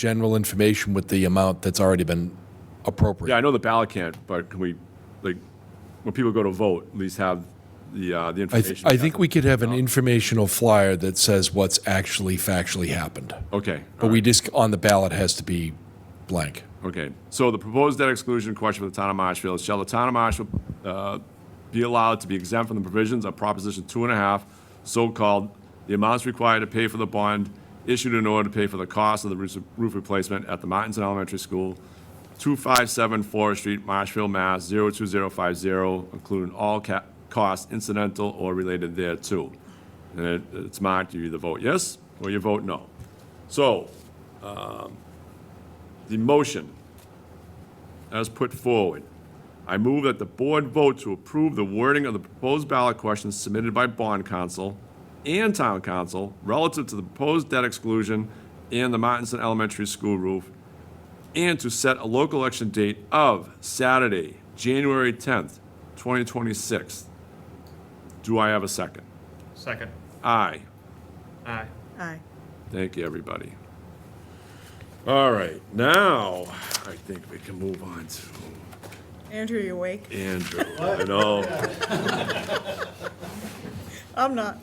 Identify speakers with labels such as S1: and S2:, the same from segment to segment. S1: general information with the amount that's already been
S2: Yeah,
S1: appropriate.
S2: I know the ballot can't, but can we, like, when people go to vote, at least have the,
S1: I,
S2: uh, the
S1: th-
S2: information?
S1: I think we could have an informational flyer that says what's actually factually happened.
S2: Okay,
S1: But we just, on the ballot has to be blank.
S2: okay. So the proposed debt exclusion question for the town of Marshfield, is, shall the town of Marshfield, uh, be allowed to be exempt from the provisions of Proposition Two and a Half, so-called, the amounts required to pay for the bond issued in order to pay for the cost of the roof roof replacement at the Martinson Elementary School, 257 Forest Street, Marshfield, Mass. 02050, including all ca- costs incidental or related thereto. And it- it's marked, you either vote yes or you vote no. So, um, the motion as put forward, I move that the board vote to approve the wording of the proposed ballot questions submitted by bond council and town council relative to the proposed debt exclusion and the Martinson Elementary School roof and to set a local election date of Saturday, January 10th, 2026. Do I have a second?
S3: Second.
S2: Aye.
S3: Aye.
S4: Aye.
S2: Thank you, everybody. All right, now I think we can move on to
S4: Andrew, you awake?
S2: Andrew. I know.
S4: I'm not.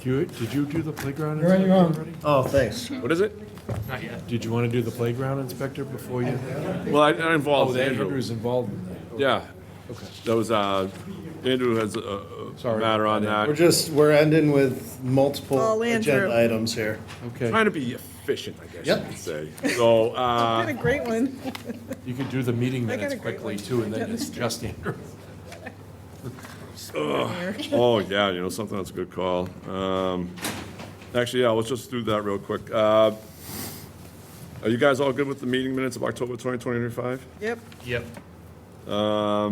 S5: Did you do the playground?
S6: You're on your own.
S5: Oh, thanks.
S2: What is it?
S3: Not yet.
S5: Did you want to do the playground inspector before you?
S2: Well, I- I
S5: Oh,
S2: involved Andrew.
S5: Andrew's involved in that.
S2: Yeah. That was, uh, Andrew has a- a
S5: Sorry.
S2: matter on
S7: We're
S2: that.
S7: just, we're ending with
S4: All
S7: multiple
S4: Andrew.
S7: agenda items here.
S5: Okay,
S2: Trying to be efficient, I guess you
S7: Yep.
S2: could say. So, uh,
S4: Had a great one.
S5: you could do the meeting
S4: I got
S5: minutes
S4: a great
S5: quickly
S4: one.
S5: too, and then it's just Andrew.
S2: Oh, yeah, you know, something that's a good call. Um, Actually, yeah, let's just do that real quick. Uh, Are you guys all good with the meeting minutes of October 2025?
S4: Yep.
S3: Yep.
S2: I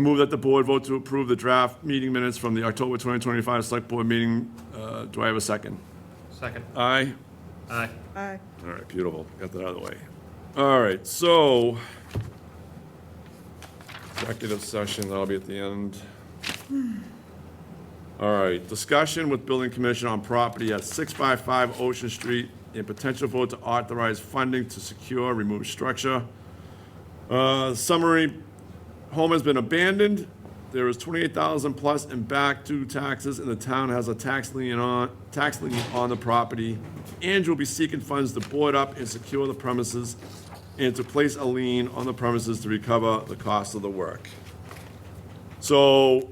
S2: move that the board vote to approve the draft meeting minutes from the October 2025 Select Board meeting. Uh, Do I have a second?
S3: Second.
S2: Aye?
S3: Aye.
S4: Aye.
S2: All right, beautiful. Got that out of the way. All right, so executive session, that'll be at the end. All right, discussion with building commission on property at 655 Ocean Street and potential vote to authorize funding to secure remove structure. Uh, Summary, home has been abandoned. There is 28,000 plus in back due taxes, and the town has a tax lien on, tax lien on the property. Andrew will be seeking funds to board up and secure the premises, and to place a lien on the premises to recover the cost of the work. So,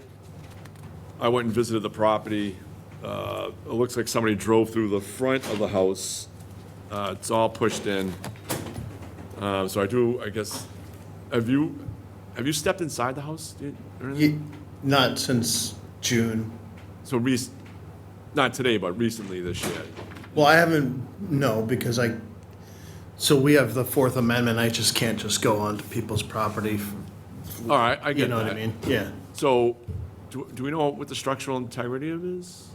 S2: I went and visited the property. Uh, It looks like somebody drove through the front of the house. Uh, It's all pushed in. Uh, So I do, I guess, have you, have you stepped inside the house? dude, or anything?
S7: Ye- Not since June.
S2: So rec- not today, but recently this year.
S7: Well, I haven't, no, because I, so we have the Fourth Amendment, I just can't just go onto people's property.
S2: All right, I
S7: You
S2: get
S7: know what I
S2: that.
S7: mean? Yeah.
S2: So, do, do we know what the structural integrity of it is?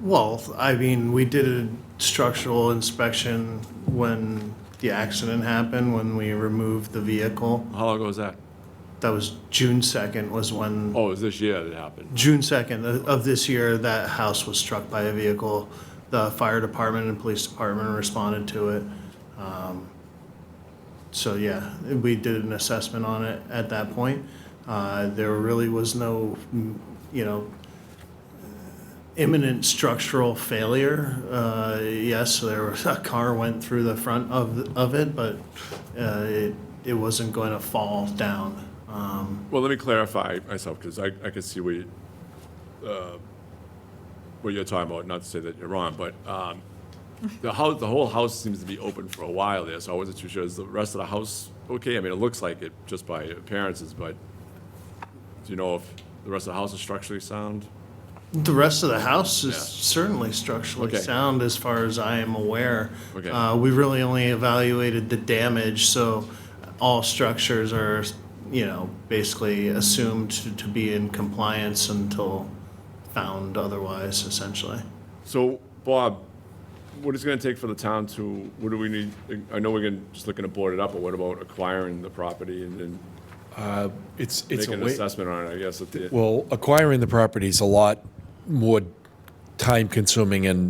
S7: Well, I mean, we did a structural inspection when the accident happened, when we removed the vehicle.
S2: How long ago was that?
S7: That was June second was when
S2: Oh, it was this year that it happened.
S7: June 2nd of- of this year, that house was struck by a vehicle. The fire department and police department responded to it. Um, So, yeah, we did an assessment on it at that point. Uh, There really was no, mm, you know, imminent structural failure. Uh, Yes, there was, a car went through the front of, of it, but uh, it, it wasn't going to fall down. Um,
S2: Well, let me clarify myself, because I, I can see where you, uh, what you're talking about, not to say that you're wrong, but, um, the house, the whole house seems to be open for a while there, so I wasn't too sure. Is the rest of the house okay? I mean, it looks like it just by appearances, but do you know if the rest of the house is structurally sound?
S7: The rest of the house is
S2: Yeah.
S7: certainly structurally
S2: Okay.
S7: sound, as far as I am aware.
S2: Okay.
S7: Uh, we really only evaluated the damage, so all structures are, you know, basically assumed to, to be in compliance until found otherwise, essentially.
S2: So, Bob, what is it gonna take for the town to, what do we need, I know we're gonna, just looking to board it up, but what about acquiring the property and then
S1: It's, it's a
S2: making an
S1: way,
S2: assessment on it, I guess, at the,
S1: well, acquiring the property is a lot more time consuming and